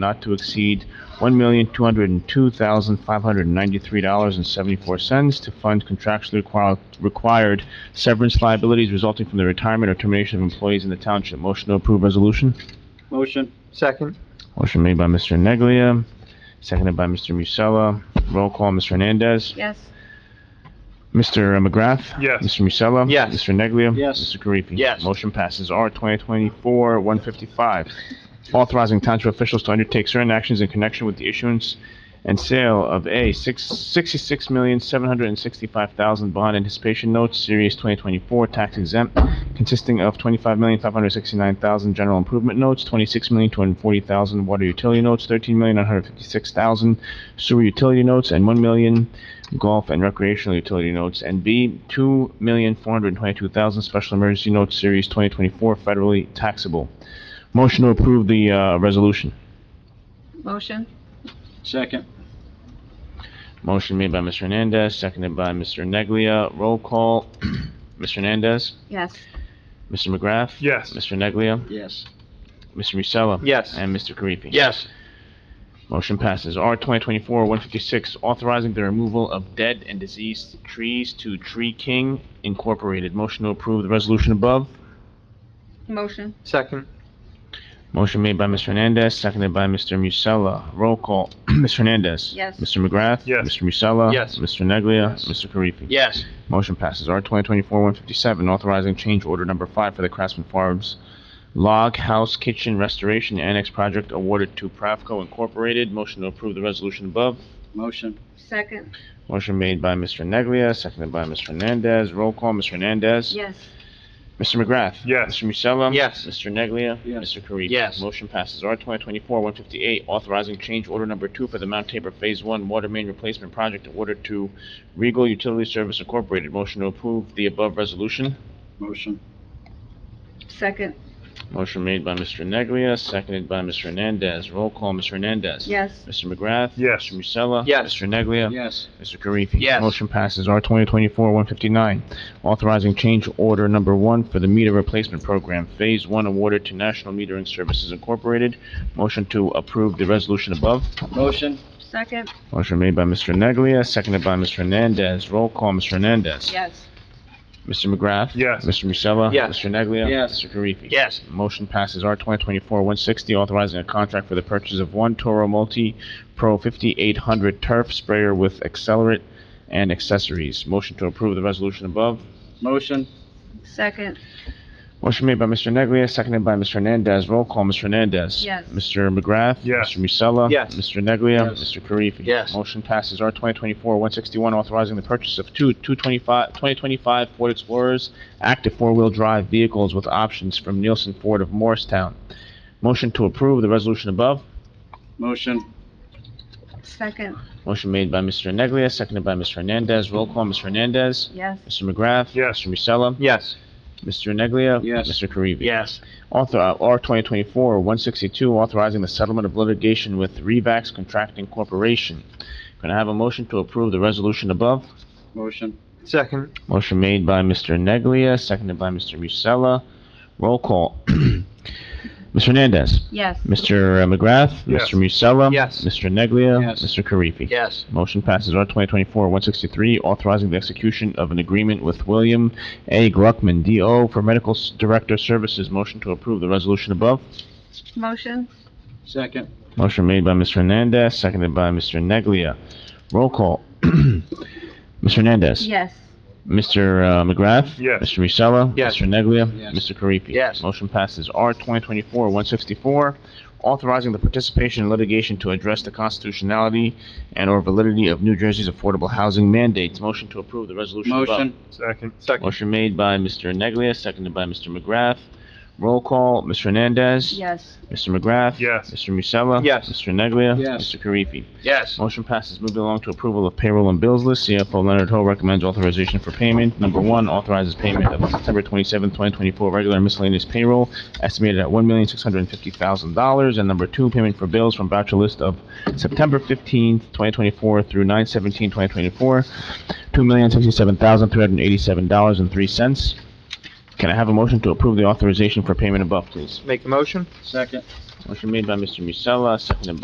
not to exceed $1,202,593.74 to fund contractually requir- required severance liabilities resulting from the retirement or termination of employees in the township. Motion to approve resolution? Motion. Second. Motion made by Mr. Neglia, seconded by Mr. Musella. Roll call, Ms. Hernandez. yes, Mr. McGrath? Yes. Mr. Musella? Yes. Mr. Neglia? Yes. Mr. Karifi? Yes. Motion passes. R 2024-155, authorizing township officials to undertake certain actions in connection with the issuance and sale of A, six- 66765000 bond anticipation notes, Series 2024, tax exempt, consisting of 25569000 general improvement notes, 26240000 water utility notes, 13956000 sewer utility notes, and 1 million golf and recreational utility notes, and B, two million four hundred and twenty-two thousand special emergency notes series twenty twenty-four federally taxable. Motion to approve the, uh, resolution. motion, Second. Motion made by Mr. Hernandez, seconded by Mr. Neglia. Roll call, Mr. Hernandez, yes, Mr. McGrath. Yes. Mr. Neglia, Yes. Mr. Musella. Yes. And Mr. Karifi. Yes. Motion passes. R 2024-156, authorizing the removal of dead and diseased trees to Tree King Incorporated. Motion to approve the resolution above. motion, Second. Motion made by Mr. Hernandez, seconded by Mr. Musella. Roll call, Mr. Hernandez. Yes. Mr. McGrath. Yes. Mr. Musella. Yes. Mr. Neglia. Mr. Karifi. Yes. Motion passes. R 2024-157, authorizing change order number five for the Craftsman Farms Log House Kitchen Restoration Annex Project awarded to Pravco Incorporated. Motion to approve the resolution above. Motion. second, Motion made by Mr. Neglia, seconded by Mr. Hernandez. Roll call, Mr. Hernandez. yes, Mr. McGrath? Yes. Mr. Musella? Yes. Mr. Neglia? Yes. Mr. Karifi? Yes. Motion passes. R twenty twenty-four one fifty-eight, authorizing change order number two for the Mount Tabor Phase One Water Main Replacement Project awarded to Regal Utility Service Incorporated. Motion to approve the above resolution. Motion. second, Motion made by Mr. Neglia, seconded by Mr. Hernandez. Roll call, Mr. Hernandez? yes, Mr. McGrath? Yes. Mr. Musella? Yes. Mr. Neglia? Yes. Mr. Karifi. Yes. Motion passes R twenty twenty-four one fifty-nine, authorizing change order number one for the meter replacement program, Phase One awarded to National Metering Services Incorporated. Motion to approve the resolution above. Motion. second, Motion made by Mr. Neglia, seconded by Mr. Hernandez. Roll call, Mr. Hernandez. yes, Mr. McGrath. Yes. Mr. Musella. Yes. Mr. Neglia. Yes. Mr. Karifi. Yes. Motion passes R twenty twenty-four one sixty, authorizing a contract for the purchase of one Toro Multi Pro fifty-eight hundred turf sprayer with accelerant and accessories. Motion to approve the resolution above. Motion. second, Motion made by Mr. Neglia, seconded by Mr. Hernandez. Roll call, Mr. Hernandez. Yes. Mr. McGrath. Yes. Mr. Musella. Yes. Mr. Neglia. Yes. Mr. Karifi. Yes. Motion passes R twenty twenty-four one sixty-one, authorizing the purchase of two 2025 2025 Ford Explorers active four-wheel drive vehicles with options from Nielsen Ford of Morristown. Motion to approve the resolution above. Motion. second, Motion made by Mr. Neglia, seconded by Mr. Hernandez. Roll call, Mr. Hernandez. yes, Mr. McGrath. Yes. Mr. Musella. Yes. Mr. Neglia. Yes. Mr. Karifi. Yes. Author, uh, R twenty twenty-four one sixty-two, authorizing the settlement of litigation with Revax Contracting Corporation. Can I have a motion to approve the resolution above? Motion. Second. Motion made by Mr. Neglia, seconded by Mr. Musella. Roll call. Mr. Hernandez. yes, Mr. McGrath. Yes. Mr. Musella. Yes. Mr. Neglia. Yes. Mr. Karifi. Yes. Motion passes R twenty twenty-four one sixty-three, authorizing the execution of an agreement with William A. Gluckman, D.O. for Medical S- Director Services. Motion to approve the resolution above. motion, Second. Motion made by Mr. Hernandez, seconded by Mr. Neglia. Roll call. Mr. Hernandez. yes, Mr. uh, McGrath. Yes. Mr. Musella. Yes. Mr. Neglia. Yes. Mr. Karifi. Yes. Motion passes R 2024-164, authorizing the participation in litigation to address the constitutionality and/or validity of New Jersey's affordable housing mandates. Motion to approve the resolution above. Motion. Second. Second. Motion made by Mr. Neglia, seconded by Mr. McGrath. Roll call. Mr. Hernandez. yes, Mr. McGrath? Yes. Mr. Musella? Yes. Mr. Neglia? Yes. Mr. Karifi? Yes. Motion passes. Moving along to approval of payroll and bills list. CFO Leonard Ho recommends authorization for payment. Number one, authorizes payment of September twenty-seventh, twenty twenty-four regular miscellaneous payroll estimated at one million, six hundred and fifty thousand dollars. And number two, payment for bills from voucher list of September fifteenth, twenty twenty-four through nine seventeen, twenty twenty-four, two million, sixty-seven thousand, three hundred and eighty-seven dollars and three cents. Can I have a motion to approve the authorization for payment above, please? Make a motion? Second. Motion made by Mr. Musella, seconded by